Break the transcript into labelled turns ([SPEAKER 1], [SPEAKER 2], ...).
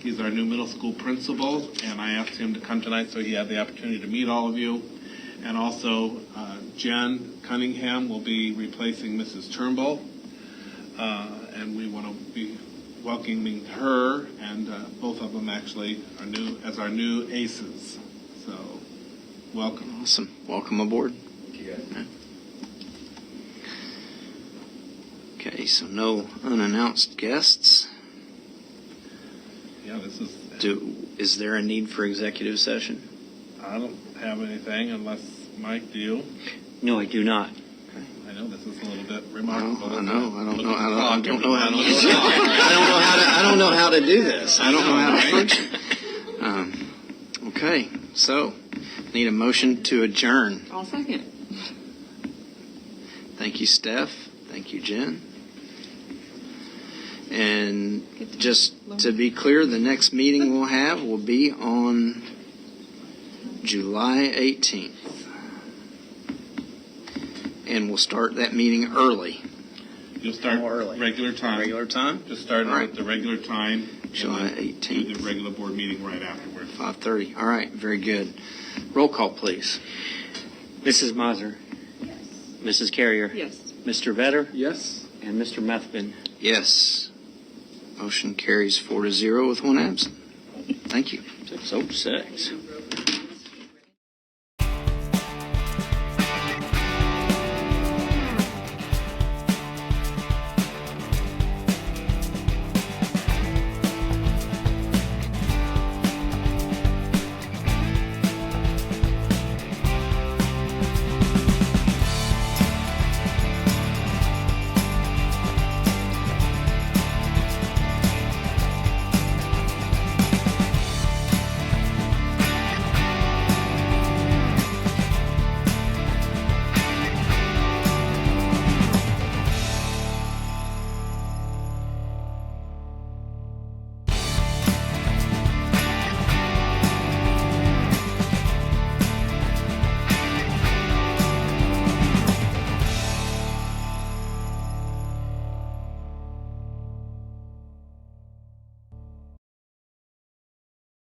[SPEAKER 1] He's our new middle school principal, and I asked him to come tonight so he had the opportunity to meet all of you. And also, uh, Jen Cunningham will be replacing Mrs. Turnbull, uh, and we want to be welcoming her and uh, both of them actually are new as our new aces. So, welcome.
[SPEAKER 2] Awesome. Welcome aboard. Okay, so no unannounced guests.
[SPEAKER 1] Yeah, this is.
[SPEAKER 2] Do is there a need for executive session?
[SPEAKER 1] I don't have anything unless Mike, do you?
[SPEAKER 3] No, I do not.
[SPEAKER 1] I know this is a little bit
[SPEAKER 2] Well,
[SPEAKER 1] remarkable.
[SPEAKER 2] I
[SPEAKER 1] isn't
[SPEAKER 2] know.
[SPEAKER 1] it?
[SPEAKER 2] I don't
[SPEAKER 1] Look
[SPEAKER 2] know.
[SPEAKER 1] at
[SPEAKER 2] I
[SPEAKER 1] the
[SPEAKER 2] don't, I
[SPEAKER 1] clock,
[SPEAKER 2] don't know how to.
[SPEAKER 1] everyone. Look at the clock.
[SPEAKER 2] I don't know how to. I don't know how to do this. I don't know how to
[SPEAKER 1] Right?
[SPEAKER 2] function. Um, okay, so need a motion to adjourn.
[SPEAKER 4] I'll second.
[SPEAKER 2] Thank you, Steph. Thank you, Jen. And just to be clear, the next meeting we'll have will be on July 18th. And we'll start that meeting early.
[SPEAKER 1] You'll start
[SPEAKER 2] More early.
[SPEAKER 1] regular time.
[SPEAKER 2] Regular time?
[SPEAKER 1] Just start
[SPEAKER 2] All right.
[SPEAKER 1] at the regular time. and
[SPEAKER 2] July
[SPEAKER 1] then Do
[SPEAKER 2] 18th.
[SPEAKER 1] the regular board meeting right afterwards.
[SPEAKER 2] 5:30. All right, very good. Roll call, please.
[SPEAKER 3] Mrs. Mazur. Yes. Mrs. Carrier.
[SPEAKER 4] Yes.
[SPEAKER 3] Mr. Vetter
[SPEAKER 1] Yes.
[SPEAKER 3] and Mr. Methvin.
[SPEAKER 2] Yes. Motion carries four to zero with one absent. Thank you.
[SPEAKER 3] Six oh six.